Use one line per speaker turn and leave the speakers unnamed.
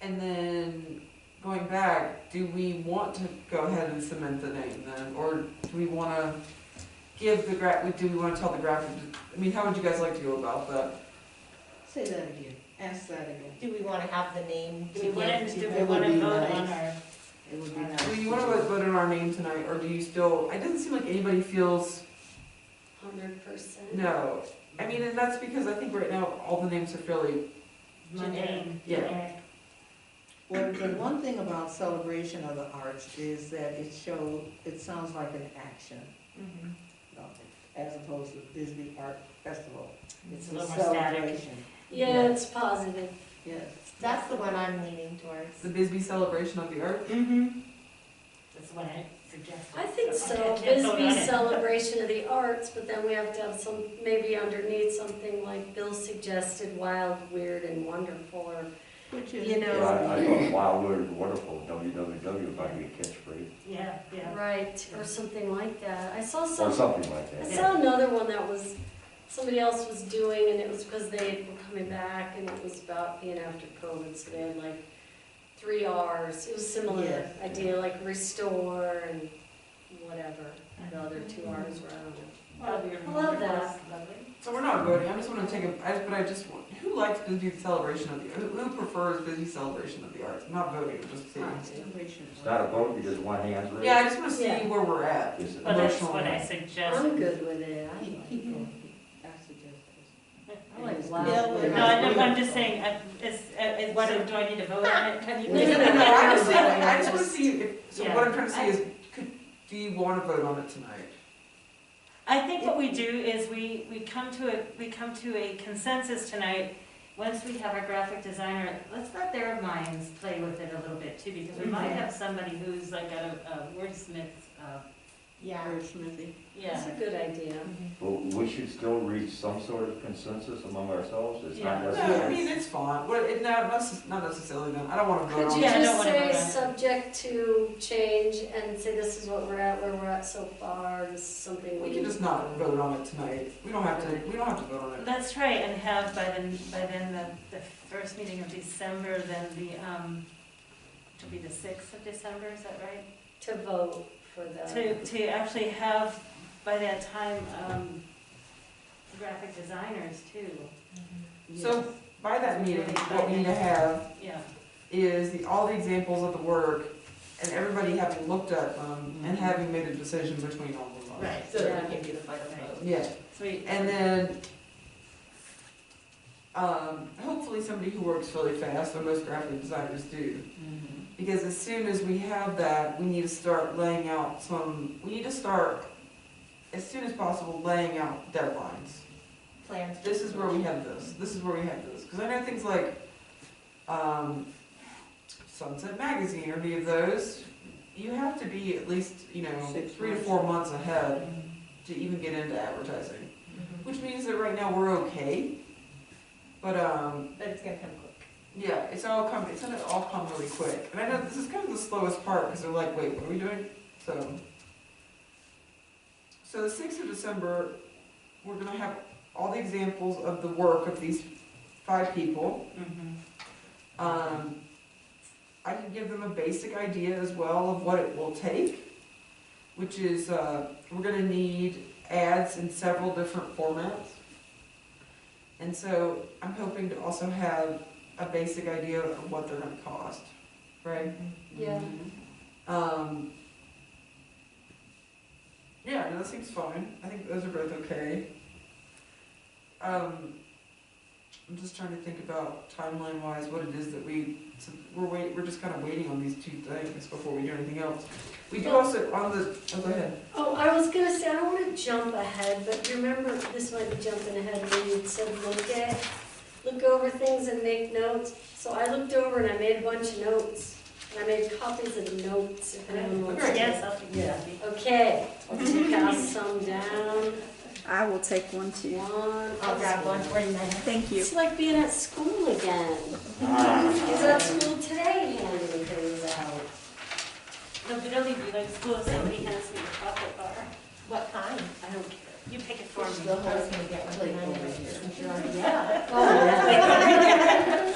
And then going back, do we want to go ahead and cement the name then, or do we want to give the gra, do we want to tell the graphic? I mean, how would you guys like to go about that?
Say that again, ask that again.
Do we wanna have the name?
Do we
to
wanna,
give
do we
It would
wanna
be
vote on
nice.
our,
It would be
I know.
nice.
Do you want to vote on our name tonight, or do you still? It doesn't seem like anybody feels
Hundred percent.
no. I mean, and that's because I think right now all the names are fairly
generic?
Yeah.
generic?
Well, the one thing about celebration of the arts is that it show, it sounds like an action,
Mhm.
you know, as opposed to Bisbee Art Festival. It's
A
a
little more static.
celebration.
Yeah, it's positive.
Yes.
That's the one I'm leaning towards.
the Bisbee celebration of the arts.
Mm-hmm.
That's what I suggested.
I think so,
can't vote
Bisbee
on it.
celebration of the arts, but then we have to have some, maybe underneath something like Bill suggested, wild, weird, and wonderful, or,
Which is.
you
Yeah, I, I
know,
thought, wow, we're wonderful, WWW, if I could catch free,
Yeah, yeah.
right, or something like that. I saw
or
some,
something like
I
that.
saw another one that was, somebody else was doing, and it was because they were coming back, and it was about being after COVID, so they had like three Rs. It was similar
Yeah.
idea, like restore and whatever, the other two Rs were, I don't know.
Well, your
I love
number
that.
was lovely.
So we're not voting. I just want to take a. I, but I just want. Who likes Bisbee celebration of the? Who, who prefers Bisbee celebration of the arts? I'm not voting. I'm just seeing.
Celebration.
It's not a vote, you just one hand's raised.
Yeah, I just want to see
Yeah.
where we're at.
It's an
But that's
emotional.
what I
moment.
suggested.
I'm good with it. I
Keep,
like
keep
it.
going. I suggest this.
I like wild.
Yeah,
weird.
we're
No, I'm, I'm just saying, uh, is, uh, is, what, do I need to vote on it? Can you-
No, no, no, no, I just, I just wanna see, if- so what I'm trying to see is, could, do you wanna vote on it tonight?
I think what we do is we, we come to a, we come to a consensus tonight. Once we have our graphic designer, let's let their minds play with it a little bit too, because we might have somebody who's like a, a wordsmith, uh,
Yeah.
Smithy.
yeah.
That's a good idea.
But we should still reach some sort of consensus among ourselves, it's
Yeah.
not
No, I
necessary.
mean, it's fine, what, it, no, not necess- not necessarily, then, I don't wanna vote
Could you
on it.
Um, Yeah, I don't
just
wanna
say
vote on it.
subject to change and say this is what we're at, where we're at so far, this is something we.
We can just not vote on it tonight, we don't have to, we don't have to vote on it.
Let's try and have by then, by then, the, the first meeting of December, then the, um, it'll be the sixth of December, is that right?
To vote for the,
To, to actually have, by that time, um, graphic designers too,
So, by that meeting, what we need to have
yeah.
is the, all the examples of the work, and everybody having looked at them, and having made a decision between all of them.
Right.
So that we
can do the final vote.
Yeah,
Sweet.
And then, um, hopefully somebody who works really fast, or most graphic designers do. Because as soon as we have that, we need to start laying out some, we need to start, as soon as possible, laying out deadlines.
Plans.
This is where we have this, this is where we have this. Because I know things like, um, Sunset Magazine or any of those, you have to be at least, you know,
Six
three to
months. Mm-hmm.
four months ahead to even get into advertising.
Mm-hmm.
Which means that right now we're okay, but, um,
But it's gonna come quick.
yeah, it's all come, it's gonna all come really quick. And I know this is kind of the slowest part, because they're like, wait, what are we doing? So, so the sixth of December, we're gonna have all the examples of the work of these five people.
Mhm.
Um, I can give them a basic idea as well of what it will take, which is, uh, we're gonna need ads in several different formats. And so I'm hoping to also have a basic idea of what they're gonna cost, right?
yeah,
Um, yeah, no, that seems fine. I think those are both okay. Um, I'm just trying to think about timeline wise what it is that we so we're wait we're just kind of waiting on these two things before we do anything else. We do also on the oh go ahead.
oh, I was gonna say, I don't wanna jump ahead, but you remember, this might be jumping ahead, when you said look at, look over things and make notes. So I looked over and I made a bunch of notes, and I made copies of the notes, if anyone wants to.
Yes, I'll take
Yeah.
that.
Okay, I'll take out some down,
I will take one too.
one.
I'll grab one for you.
Thank you.
It's like being at school again. Oh,